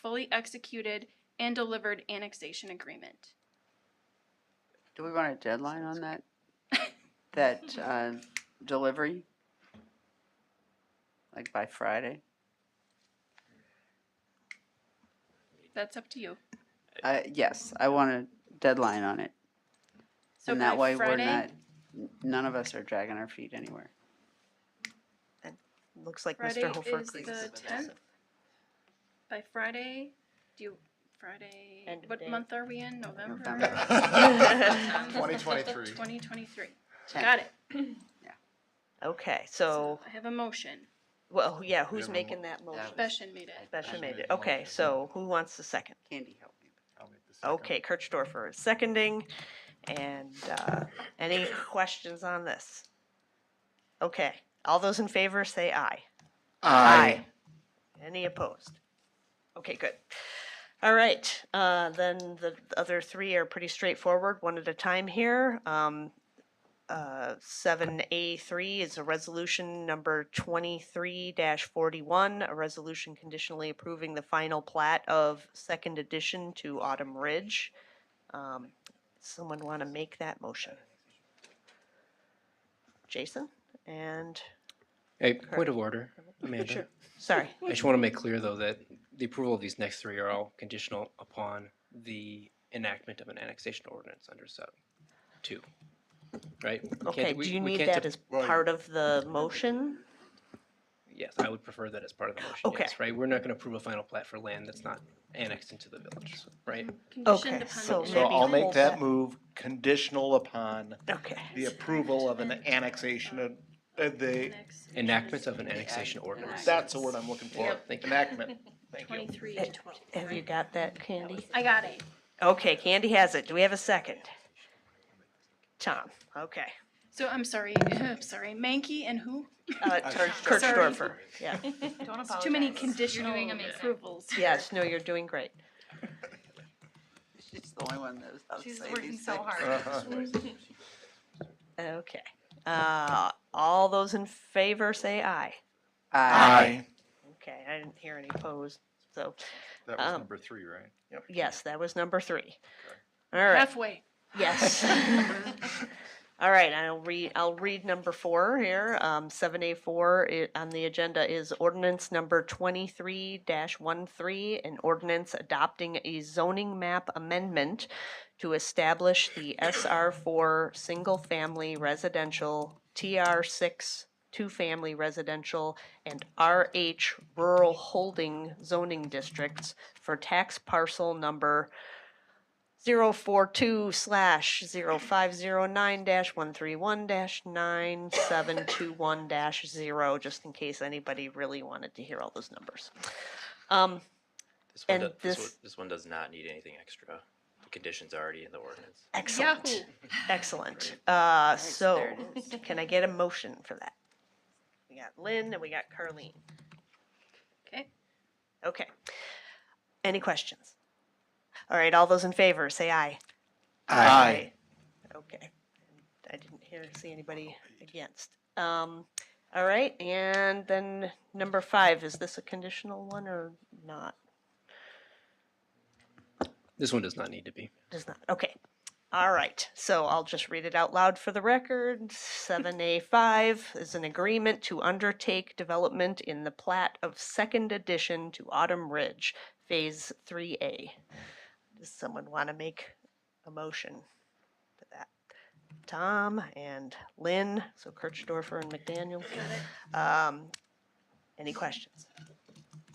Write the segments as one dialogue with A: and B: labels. A: fully executed and delivered annexation agreement.
B: Do we want a deadline on that? That, uh, delivery? Like by Friday?
A: That's up to you.
B: Uh, yes, I want a deadline on it.
A: So
B: And
A: by
B: that way we're
A: Friday-
B: not, n- none of us are dragging our feet anywhere.
C: Looks like
A: Friday
C: Mr. Hofer
A: is
C: agrees.
A: the tenth. By Friday, do you, Friday,
D: End of
A: what
D: day.
A: month are we in? November?
B: November.
D: Twenty
E: 2023.
A: Twenty twenty-three.
B: Ten.
A: Got it.
C: Okay, so,
A: I have a motion.
C: well, yeah, who's
E: Minimum.
C: making that motion?
A: Beshan made it.
C: Besha
E: Besha
C: made
E: made
C: it.
E: the
C: Okay,
E: motion.
C: so who wants the second?
B: Candy help me.
E: I'll make the second.
C: Okay, Kirchdorfer is seconding. And uh, any questions on this? Okay, all those in favor say aye. Aye. Any opposed? Okay, good. All right, uh, then the other three are pretty straightforward, one at a time here. Um, uh, seven A three is a resolution number twenty-three forty-one, a resolution conditionally approving the final plat of second addition to Autumn Ridge. Um, someone want to make that motion? Jason and,
F: A point of order, Amanda.
C: Sure. sorry,
F: I just want to make clear, though, that the approval of these next three are all conditional upon the enactment of an annexation ordinance under sub two, right? We can't-
C: okay,
F: we-
C: do you
F: we
C: need
F: can't
C: that
F: de-
C: as part of the motion?
F: Yes, I would prefer that as part of the motion,
C: Okay.
F: yes, right? We're not going to approve a final plat for land that's not annexed into the village, right?
A: Conditioned
C: Okay,
A: upon
C: so
A: the
C: maybe
G: So I'll make
C: hold
G: that
C: that.
G: move conditional upon
C: Okay.
G: the approval of an annexation of, uh, the,
A: annexation
F: Enactment of an annexation ordinance.
G: that's the word I'm looking for,
F: Yep. Thank you.
G: enactment. Thank you.
A: Twenty-three
C: Eh,
A: to twelve.
C: Have you got that, Candy?
A: I got it.
C: Okay, Candy has it. Do we have a second? Tom, okay.
A: So I'm sorry, I'm sorry. Mankey and who?
C: Uh, Kirchdorfer, yeah.
A: It's Too many conditional approvals.
C: Yes, no, you're doing great.
B: She's the only one that knows how to say
H: She's
B: these
H: working so
B: things.
H: hard.
C: Okay. Uh, all those in favor say aye.
B: Aye.
G: Aye.
C: Okay, I didn't hear any opposed, so,
E: That was
C: Um,
E: number three, right?
C: yes, that was number three. All right.
A: Halfway.
C: Yes. All right, I'll read, I'll read number four here. Um, seven A four on the agenda is ordinance number twenty-three 13 an ordinance adopting a zoning map amendment to establish the SR four single-family residential, TR six two-family residential, and RH rural holding zoning districts for tax parcel number 042 slash 0509 dash 131 dash 9721 dash 0, just in case anybody really wanted to hear all those numbers. Um,
I: This one,
C: And
I: does, this,
C: this-
I: one, this one does not need anything extra. The condition's already in the ordinance.
C: excellent,
A: Yahoo.
C: excellent. Uh,
B: Nice,
C: so,
B: there it is.
C: can I get a motion for that? We got Lynn and we got Carleen.
A: Okay.
C: Okay. Any questions? All right, all those in favor, say aye.
G: Aye.
C: Okay. I didn't hear, see anybody against. Um, all right, and then number five, is this a conditional one or not?
F: This one does not need to be.
C: Does not, okay. All right, so I'll just read it out loud for the record. Seven A five is an agreement to undertake development in the plat of second addition to Autumn Ridge, Phase Three A. Does someone want to make a motion for that? Tom and Lynn, so Kirchdorfer and McDaniel. Um, any questions?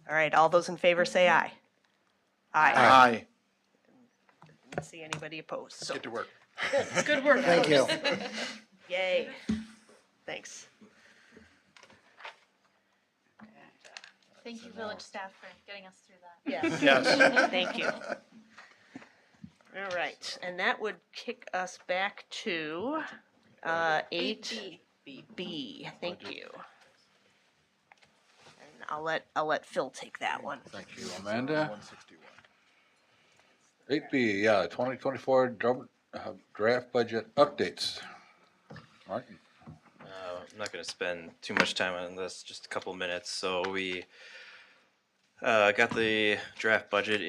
C: All right, all those in favor say aye. Aye.
G: Aye.
C: Didn't See anybody opposed, so.
E: Get to work.
A: Good work.
G: Thank you.
C: Yay. Thanks.
H: Thank you, village staff, for getting us through that.
C: Yes.
G: Yes.
C: Thank you. All right, and that would kick us back to uh, eight
A: B.
C: B. Thank you. And I'll let, I'll let Phil take that one.
J: Thank you, Amanda.
E: 161.
J: Eight B, yeah, twenty twenty-four uh, draft budget updates. Martin?
I: Uh, I'm not going to spend too much time on this, just a couple minutes. So we
F: Uh, I got the draft budget